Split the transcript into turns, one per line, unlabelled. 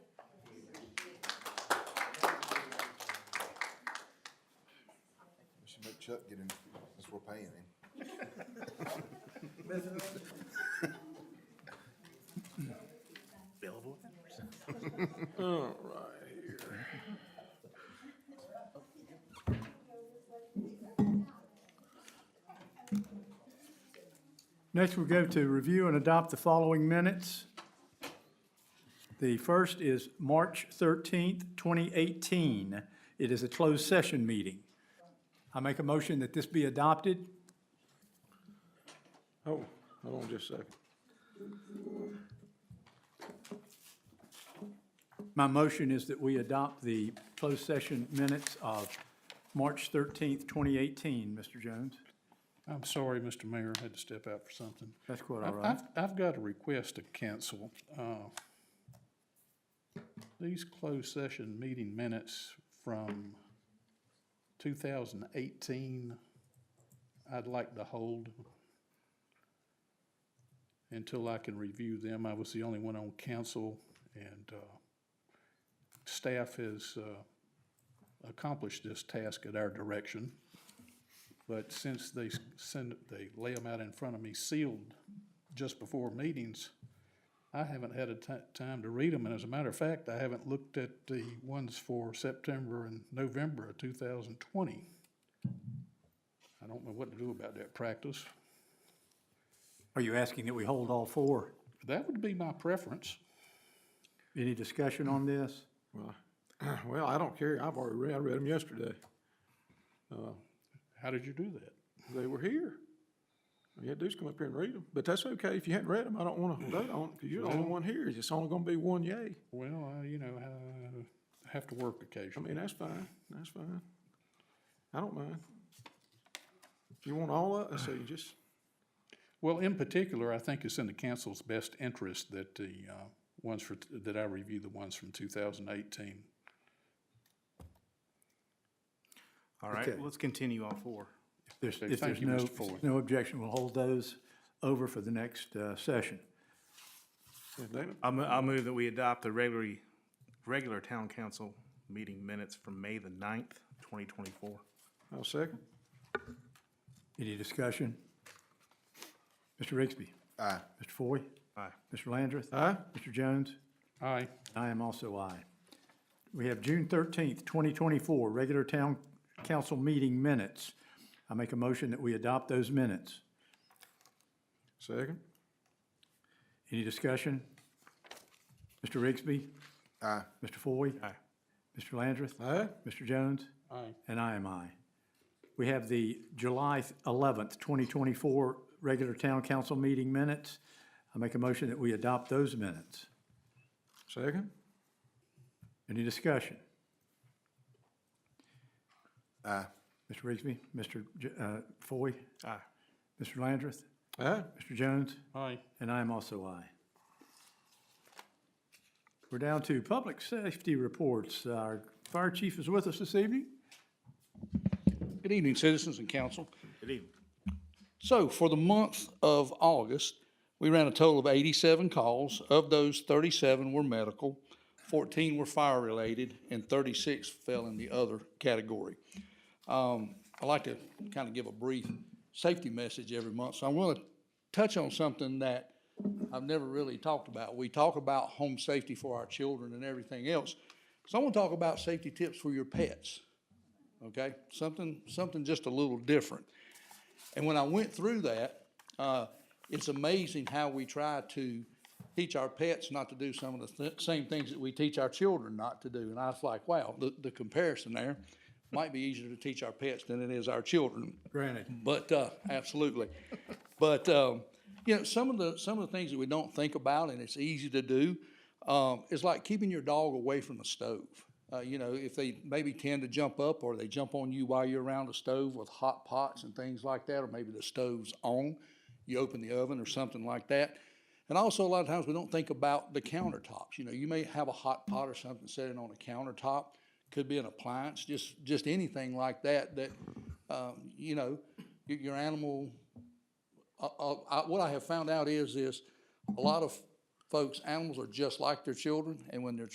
Chuck get in, since we're paying him.
Available?
All right, here.
Next, we'll go to review and adopt the following minutes. The first is March 13th, 2018. It is a closed session meeting. I make a motion that this be adopted.
Oh, hold on just a second.
My motion is that we adopt the closed session minutes of March 13th, 2018, Mr. Jones.
I'm sorry, Mr. Mayor, I had to step out for something.
That's quite all
I've,
right.
I've- I've got a request to cancel. uh, These closed session meeting minutes from 2018, I'd like to hold until I can review them. I was the only one on council, and uh, staff has uh, accomplished this task at our direction. But since they s- send, they lay them out in front of me sealed just before meetings, I haven't had a ti- time to read them, and as a matter of fact, I haven't looked at the ones for September and November of two thousand twenty. I don't know what to do about that practice.
Are you asking that we hold all four?
That would be my preference.
Any discussion on this?
Well, I- Well, I don't care. I've already read, I read them yesterday.
How did you do that?
They were here. All You had to do is come up here and read them, but that's okay. If you hadn't read them, I don't want to vote on it because you're the only one here. It's only going to be one yay.
Well, I, you know, I have to work
I
occasionally.
mean, that's fine. That's fine. I don't mind. If you want all of, so you just,
Well, in particular, I think it's in the council's best interest that the uh, ones for, that I review the ones from 2018.
All right,
Okay.
let's continue on four.
There's,
Okay,
if
thank
there's
you,
no,
Mr. Ford.
no objection, we'll hold those over for the next uh, session.
if they don't-
I'll, mo- I'll move that we adopt the regularly, regular town council meeting minutes from May the ninth, twenty twenty-four.
I'll second.
Any discussion? Mr. Rigsby.
Aye.
Mr. Foy.
Aye.
Mr. Landrith.
Aye?
Mr. Jones.
Aye.
I am also aye. We have June thirteenth, twenty twenty-four, regular town council meeting minutes. I make a motion that we adopt those minutes.
Second?
Any discussion? Mr. Rigsby.
Aye.
Mr. Foy.
Aye.
Mr. Landrith.
Aye?
Mr. Jones.
Aye.
And I am I. We have the July eleventh, twenty twenty-four regular town council meeting minutes. I make a motion that we adopt those minutes.
Second?
Any discussion?
Aye.
Mr. Rigsby, Mr. J- uh, Foy,
Aye.
Mr. Landrith,
Aye?
Mr. Jones,
Aye.
and I am also aye. We're down to public safety reports. Our fire chief is with us this evening.
Good evening, citizens and council.
Good evening.
So for the month of August, we ran a total of eighty-seven calls. Of those, thirty-seven were medical, fourteen were fire-related, and thirty-six fell in the other category. Um, I like to kind of give a brief safety message every month, so I'm gonna touch on something that I've never really talked about. We talk about home safety for our children and everything else. So I wanna talk about safety tips for your pets, okay? Something, something just a little different. And when I went through that, uh, it's amazing how we try to teach our pets not to do some of the th- same things that we teach our children not to do. And I was like, wow, the, the comparison there might be easier to teach our pets than it is our children.
Granted.
But, uh, absolutely. But, um, you know, some of the, some of the things that we don't think about and it's easy to do, um, is like keeping your dog away from the stove. Uh, you know, if they maybe tend to jump up or they jump on you while you're around the stove with hot pots and things like that, or maybe the stove's on, you open the oven or something like that. And also, a lot of times we don't think about the countertops. You know, you may have a hot pot or something sitting on a countertop, could be an appliance, just just anything like that. That um, you know, your, your animal. Uh, uh, I, what I have found out is is a lot of folks, animals are just like their children, and when their